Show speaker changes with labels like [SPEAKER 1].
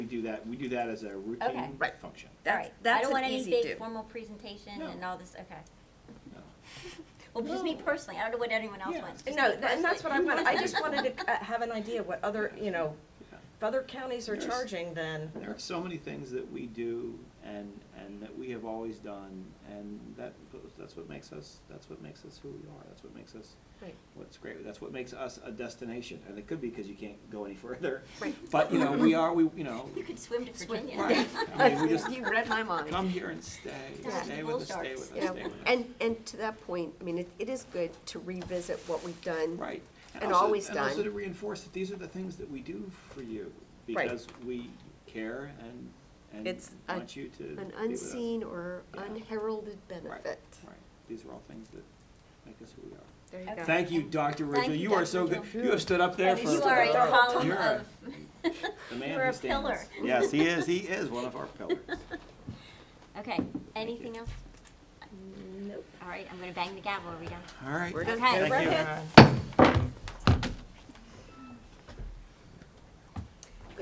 [SPEAKER 1] do that, we do that as a
[SPEAKER 2] Okay.
[SPEAKER 1] routine
[SPEAKER 3] Right.
[SPEAKER 1] function.
[SPEAKER 3] That's,
[SPEAKER 2] Alright,
[SPEAKER 3] that's
[SPEAKER 2] I
[SPEAKER 3] an
[SPEAKER 2] don't want
[SPEAKER 3] easy
[SPEAKER 2] any
[SPEAKER 3] do.
[SPEAKER 2] big formal presentation
[SPEAKER 1] No.
[SPEAKER 2] and all this, okay.
[SPEAKER 1] No.
[SPEAKER 2] Well, just me
[SPEAKER 1] No.
[SPEAKER 2] personally, I don't know what anyone else
[SPEAKER 1] Yeah.
[SPEAKER 2] wants. just
[SPEAKER 4] No,
[SPEAKER 2] me
[SPEAKER 4] th- and that's what I
[SPEAKER 2] personally.
[SPEAKER 4] wanted, I just wanted to uh, have an idea what other, you know,
[SPEAKER 1] Yeah.
[SPEAKER 4] if other counties are
[SPEAKER 1] There's-
[SPEAKER 4] charging, then,
[SPEAKER 1] There are so many things that we do and, and that we have always done, and that, goes- that's what makes us, that's what makes us who we are, that's what makes us,
[SPEAKER 4] Right.
[SPEAKER 1] what's great, that's what makes us a destination, and it could be because you can't go any further.
[SPEAKER 4] Right.
[SPEAKER 1] But, you know, we are, we, you know,
[SPEAKER 2] You could swim to
[SPEAKER 3] Swim.
[SPEAKER 2] Virginia.
[SPEAKER 1] Right. I mean, we just
[SPEAKER 3] You read my mind.
[SPEAKER 1] come here and stay,
[SPEAKER 2] Yeah.
[SPEAKER 1] stay with us, stay with us,
[SPEAKER 2] Yeah.
[SPEAKER 3] Yeah,
[SPEAKER 1] stay with us.
[SPEAKER 3] and, and to that point, I mean, it, it is good to revisit what we've done.
[SPEAKER 1] Right.
[SPEAKER 3] And
[SPEAKER 1] also-
[SPEAKER 3] always
[SPEAKER 1] And also
[SPEAKER 3] done.
[SPEAKER 1] to reinforce that these are the things that we do for you,
[SPEAKER 3] Right.
[SPEAKER 1] because we care and, and
[SPEAKER 3] It's a-
[SPEAKER 1] want you to be with
[SPEAKER 3] An
[SPEAKER 1] us.
[SPEAKER 3] unseen or
[SPEAKER 1] Yeah.
[SPEAKER 3] unheralded
[SPEAKER 1] Right,
[SPEAKER 3] benefit.
[SPEAKER 1] Right, these are all things that make us who we are.
[SPEAKER 3] There you go.
[SPEAKER 1] Thank you, Dr.
[SPEAKER 2] Thank
[SPEAKER 1] Rachel,
[SPEAKER 2] you,
[SPEAKER 1] you are
[SPEAKER 2] Dr.
[SPEAKER 1] so good,
[SPEAKER 2] Rachel.
[SPEAKER 1] you have stood up there
[SPEAKER 4] And
[SPEAKER 1] for.
[SPEAKER 4] you
[SPEAKER 2] You
[SPEAKER 4] First
[SPEAKER 2] are
[SPEAKER 4] of
[SPEAKER 2] a
[SPEAKER 4] all,
[SPEAKER 2] column
[SPEAKER 1] You're a-
[SPEAKER 2] of,
[SPEAKER 1] the man
[SPEAKER 2] you're
[SPEAKER 1] who
[SPEAKER 2] a
[SPEAKER 1] stands.
[SPEAKER 2] pillar.
[SPEAKER 1] Yes, he is, he is one of our pillars.
[SPEAKER 2] okay, anything else?
[SPEAKER 4] nope.
[SPEAKER 2] All right, I'm gonna bang the gavel, are we done?
[SPEAKER 1] All right.
[SPEAKER 3] We're done.
[SPEAKER 2] Okay.
[SPEAKER 1] Thank you.
[SPEAKER 4] Right.